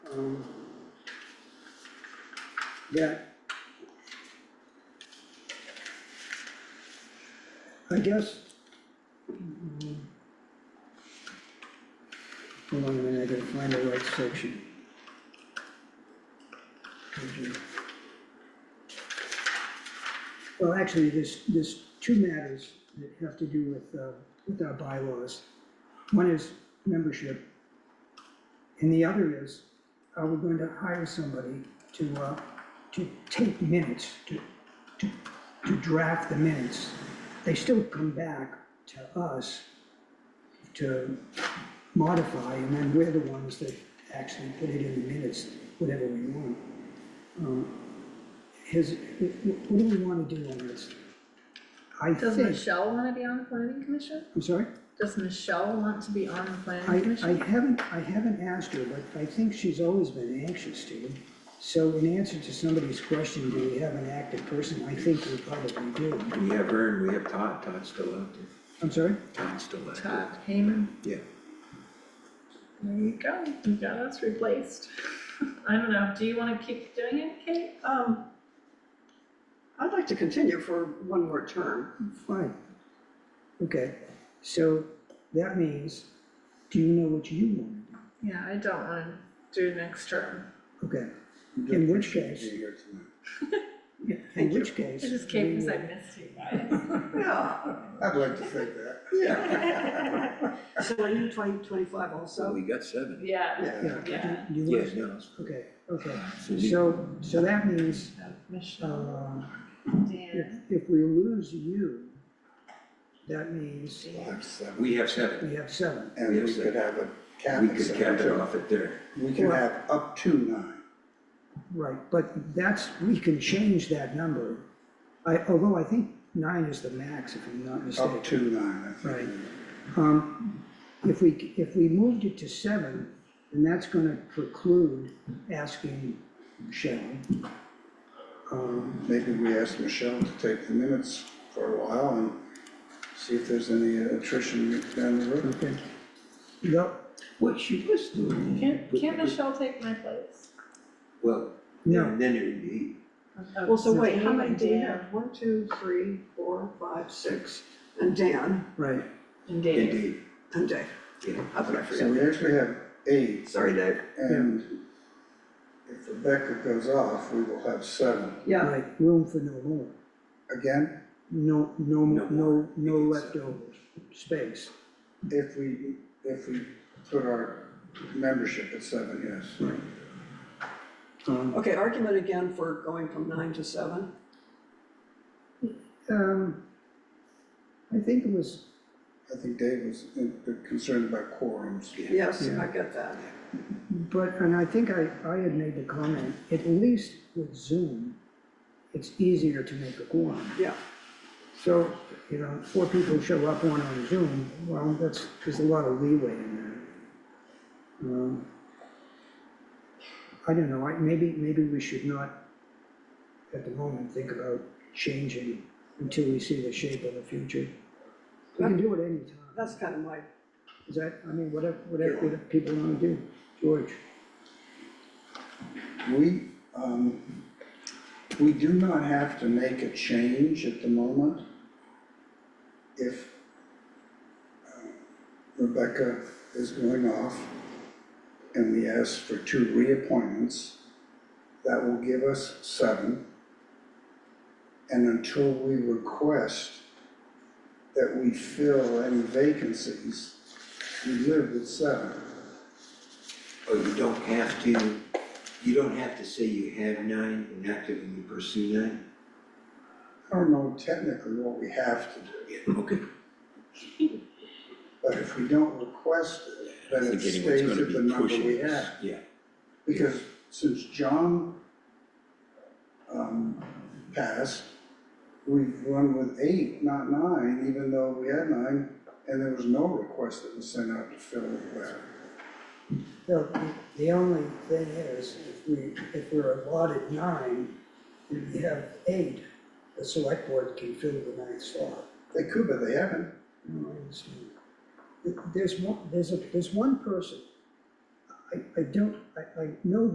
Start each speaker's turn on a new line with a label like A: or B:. A: Um, Yeah. I guess. mm, Hold on a minute, I gotta find the right section. Okay. Well, actually, there's, there's two matters that have to do with, uh, with our bylaws. One is membership, and the other is, are we going to hire somebody to, uh, to take minutes, to, to, to draft the minutes? They still come back to us to modify, and then we're the ones that actually put it in the minutes, whatever we want. Um, Has, wh- wh- what do we wanna do on this? I
B: Does
A: think,
B: Michelle wanna be on the planning commission?
A: I'm sorry?
B: Does Michelle want to be on the
A: I,
B: planning
A: I
B: commission?
A: haven't, I haven't asked her, but I think she's always been anxious to. So in answer to somebody's question, do we have an active person, I think we probably do.
C: We have her and we have Todd, Todd's still active,
A: I'm sorry?
C: Todd's still active,
B: Todd Hayman,
C: yeah.
B: there you go, you got us replaced. I don't know, do you wanna keep doing it, Kate?
D: Um, I'd like to continue for one more term.
A: Fine. Okay, so that means, do you know what you want?
B: Yeah, I don't wanna do next term.
A: Okay, in which case. Yeah, In
D: Thank you.
A: which case.
B: I just came
A: we
B: because I
A: will-
B: missed you guys.
D: Yeah.
E: I'd like to think that.
D: So I need twenty twenty-five
C: So
D: also.
C: we got seven.
B: Yeah,
A: Yeah. you-
B: Yeah.
A: you
C: Yeah,
A: must-
C: no,
A: Okay, okay,
C: so you,
A: so, so that means,
B: Michelle,
A: uh,
B: Dan,
A: if, if we lose you, that means
E: We'll have seven.
C: we have seven,
A: we have seven.
E: And we could have a cap
C: we
E: at
C: could
E: seven,
C: cap it
E: too.
C: off at there.
E: We can have up to nine.
A: Right, but that's, we can change that number. I, although I think nine is the max, if I'm not
E: Up
A: mistaken.
E: to nine, I
A: Right.
E: think.
A: Um, if we, if we moved it to seven, then that's gonna preclude asking Shannon. Um,
E: Maybe we ask Michelle to take the minutes for a while and see if there's any attrition down the road.
A: okay. No,
C: What she was doing.
B: can,
C: put
B: can
C: the-
B: Michelle take my place?
C: Well,
A: no,
C: then then it would be,
D: Well, so wait, how many do you
B: Dan
D: have? One, two, three, four, five, six, and Dan,
A: right,
B: And Dave,
C: indeed,
D: and Dave.
C: yeah.
D: How could I
E: So
D: forget?
E: we actually have eight,
D: Sorry, Dave.
E: and if Rebecca goes off, we will have seven.
D: Yeah,
A: right, room for no more.
E: Again,
A: No, no,
C: No
A: no,
C: more.
A: no
C: We can
A: leftover space.
E: if we, if we put our membership at seven, yes.
A: Um,
D: okay, argument again for going from nine to seven.
A: um, I think it was
E: I think Dave was uh, concerned about quorums.
D: Yes,
A: Yeah.
D: I get that.
A: But, and I think I, I had made the comment, at least with Zoom, it's easier to make a quorum.
D: Yeah,
A: So, you know, four people show up, one on Zoom, well, that's, there's a lot of leeway in that. Um, I don't know, I, maybe, maybe we should not, at the moment, think about changing until we see the shape of the future. We can do it anytime,
D: that's kind of my,
A: is that, I mean, whatever, whatever, whatever people wanna do, George.
E: We, um, we do not have to make a change at the moment if uh, Rebecca is going off and we ask for two reappointments. That will give us seven. And until we request that we fill any vacancies, we live with seven.
C: Oh, you don't have to, you don't have to say you have nine and actively pursue nine?
E: I don't know technically what we have to do.
C: Yeah, okay,
E: But if we don't request it,
C: I
E: then it
C: think anyone's
E: stays
C: gonna
E: at the
C: be
E: number
C: pushing
E: we
C: this,
E: have.
C: yeah.
E: Because since John um, passed, we've run with eight, not nine, even though we had nine, and there was no request that was sent out to fill it back.
A: No, the- the only thing is, if we, if we're allotted nine, and we have eight, the select board can fill the ninth slot.
E: They could, but they haven't.
A: You know, it's- There's one, there's a, there's one person, I, I don't, I, I know